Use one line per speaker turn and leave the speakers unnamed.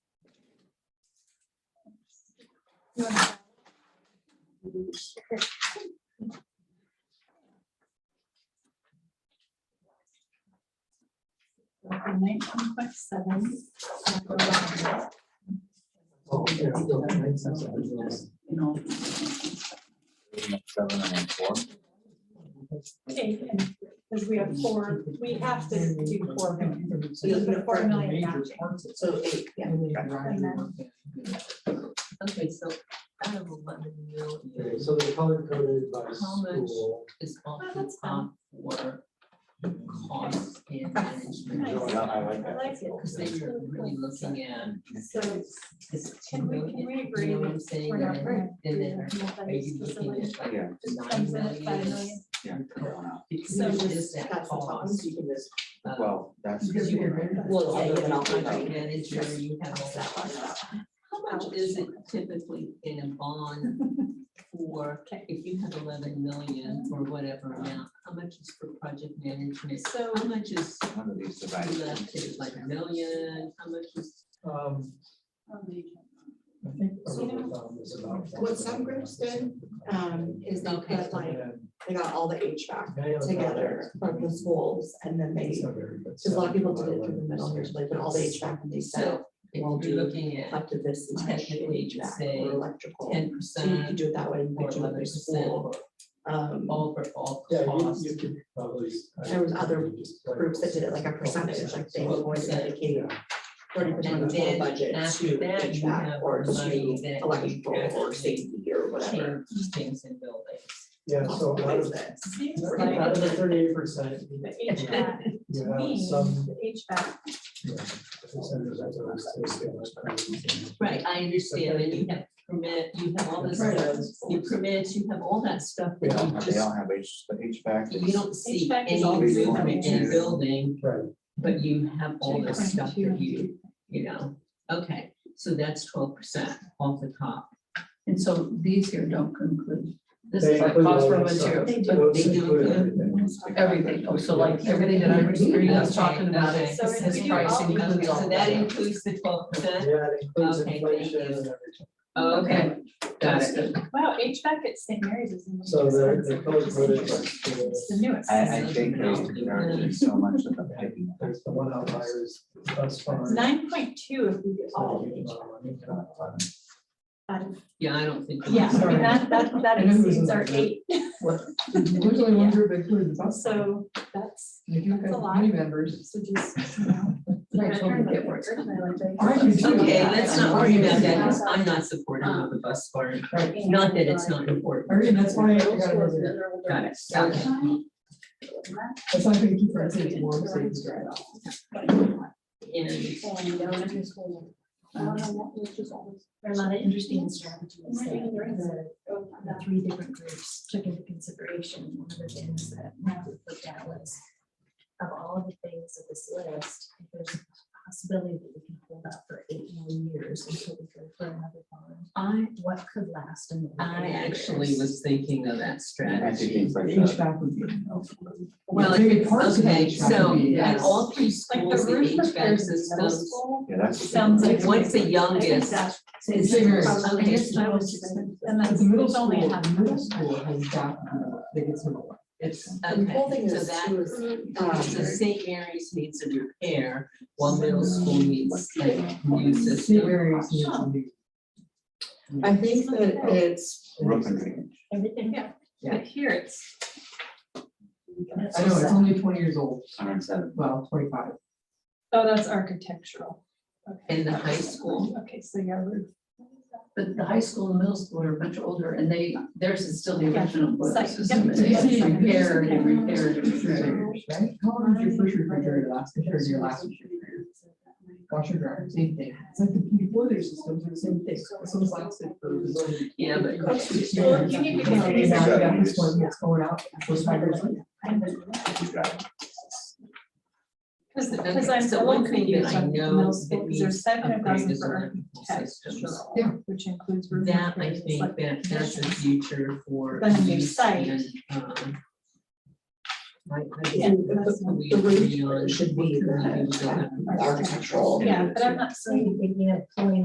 Nineteen point seven. You know.
Okay, and because we have four, we have to do four million. So you put four million matching.
So eight, yeah.
And then-
Okay, so out of eleven million
Okay, so the color coded by
How much?
school.
is off
Well,
the
that's fine.
top for costs and management.
Nice.
Yeah, I like
I
that.
like it.
Because they were really looking at,
So
is it two
can we,
million?
can we
You
agree
know what I'm
that
saying?
we're not
And
for
then, and then are
multi-use
you looking
facility?
at like
Yeah.
Just
nine
comes in at five
million?
million.
Because
So
it's
just
just that cost. of-
Well, that's.
Because you were, well,
I'll
yeah,
do it,
you're
I'll
a
find
project
out.
manager, you have all that. How much is it typically in a bond for,
Okay.
if you have eleven million or whatever amount, how much is for project management?
So
How much is
One of these devices.
left, is it like a million, how much is?
Um, I think. I
So you
wrote down this about
what some groups did, um, is they
Okay.
put like, they got all the HVAC
Yeah, yeah, it's not
together
bad.
from the schools and then they,
It's
because
not very good.
a lot of people did it through the middle here, so they put all the HVAC and they said
So if
Well,
you're looking at
up to this much in
Technically, you could
HVAC
say
or electrical.
ten
So you could
percent
do it that way and
or
put
eleven
another
percent,
school. Um,
all for all
Yeah, you,
costs.
you could probably. I
There was
could
other
probably just play
groups that
with
did it like a
couple
percentage, like
percent.
they were going to dedicate
Yeah.
thirty percent
And
of the whole
then
budget
after
to
that, you
HVAC
have
or
the money
to
that you
electrical
could
or safety or whatever.
Change things in buildings.
Yeah, so out of,
that?
seems like
out of the thirty-eight percent,
the
you
HVAC, to
have
me,
some.
the HVAC,
yeah, percentage that's always- that's always-
Right, I understand, and you have permit, you have all this, stuff, you permits, you have all that stuff,
They
but
don't
you
have, they
just,
don't have H, the HVAC.
you don't see
HVAC is
any
all
movement in
residential.
a building,
Right,
but you have all this stuff that you, you know, okay, so that's twelve percent off the top.
And so these here don't conclude. This
They
is like
include
cost
all
for
that stuff.
materials,
They do.
They do
include
include
everything.
They-
everything. Oh, so like everything that I was reading, I was talking about, it
So if
says
you do
price
all-
includes all
So that
that.
includes the twelve
Yeah,
percent?
it includes
Okay, thank
inflation and
you.
everything.
Okay, got
That's
it.
good.
wow, HVAC at St. Mary's is. the most
So the, the
expensive.
color coded.
It's the newest.
I, I think they are doing so much of the picking.
There's the one outlier is us farm.
Nine point two if we get all
So
of
you
it.
can, um,
out of-
Yeah, I don't think.
Yeah, I mean, that, that, that
I know who's
exceeds
in
our
that.
eight,
There's only
one
group that included the
so that's,
If
you that's a have lot. many
members.
so just, you know.
That's what we get worse.
Okay, let's not worry about that, 'cause I'm not supportive of the bus barn, not that it's not important.
Everything, that's why I got
Got it, got it.
that's why I think you for us.
And
There are a lot of interesting strategies
We're doing during
that
oh,
the three different groups took into consideration. One of the things that Matt looked at was of all of the things of this list, if there's a possibility that we can hold up for eight more years until we go for another bond.
I,
What could last in?
I actually was thinking of that
I
strategy.
think it's like that.
HVAC would be.
Well,
Big
it's-
parts of
okay,
HVAC
so
would be,
at
yes.
all three
Like the
schools, the
roof
HVAC
repairs in middle
systems.
school.
Yeah, that's. the thing.
Sounds like
What's the
I think
youngest?
that's
It's bigger.
probably
Okay.
just how it's expensive. And
But
that's,
the middle
it's
school,
only a half.
the middle school has got, they get some, it's.
The whole
Okay,
thing
so
is
that,
too is, um,
so St. Mary's needs a repair, while middle school needs like new
St.
system.
Mary's needs a new-
I think that it's.
Roof and drainage.
Everything.
But here it's,
I know, it's only twenty years old,
Hundred and seven.
well, twenty-five.
oh, that's architectural. Okay.
In the high school,
Okay, so yeah, roof.
But the high school and middle school are much older and they, theirs is still the
Yeah.
original boiler
Site,
system.
yep.
and They see
Yeah.
repair and repair and repair.
refrigerators, right? How long did your first refrigerator last compared to your last refrigerator? Washer dryer, same thing. It's like the heat boiler systems are the same thing. This one's lasted for.
yeah, but
Well, you need to
Now
get
we
these.
got this one that's going out, was five years later.
You got it.
Because,
Okay,
because I'm
so
so
one thing
confused
that I
on
know
middle
that
school, because
we
there's seven hundred
upgrade
thousand
is
for
electrical systems.
architectural, which includes roof.
That I
repairs, it's
think
like-
that that's the future for.
Then a new
use
site.
and, um, I, I
Yeah,
think
the-
that's what we
the roof
agree on.
should be
What can we
the-
do to-
Architectural.
Yeah, but I'm not
So you're
saying
thinking of pulling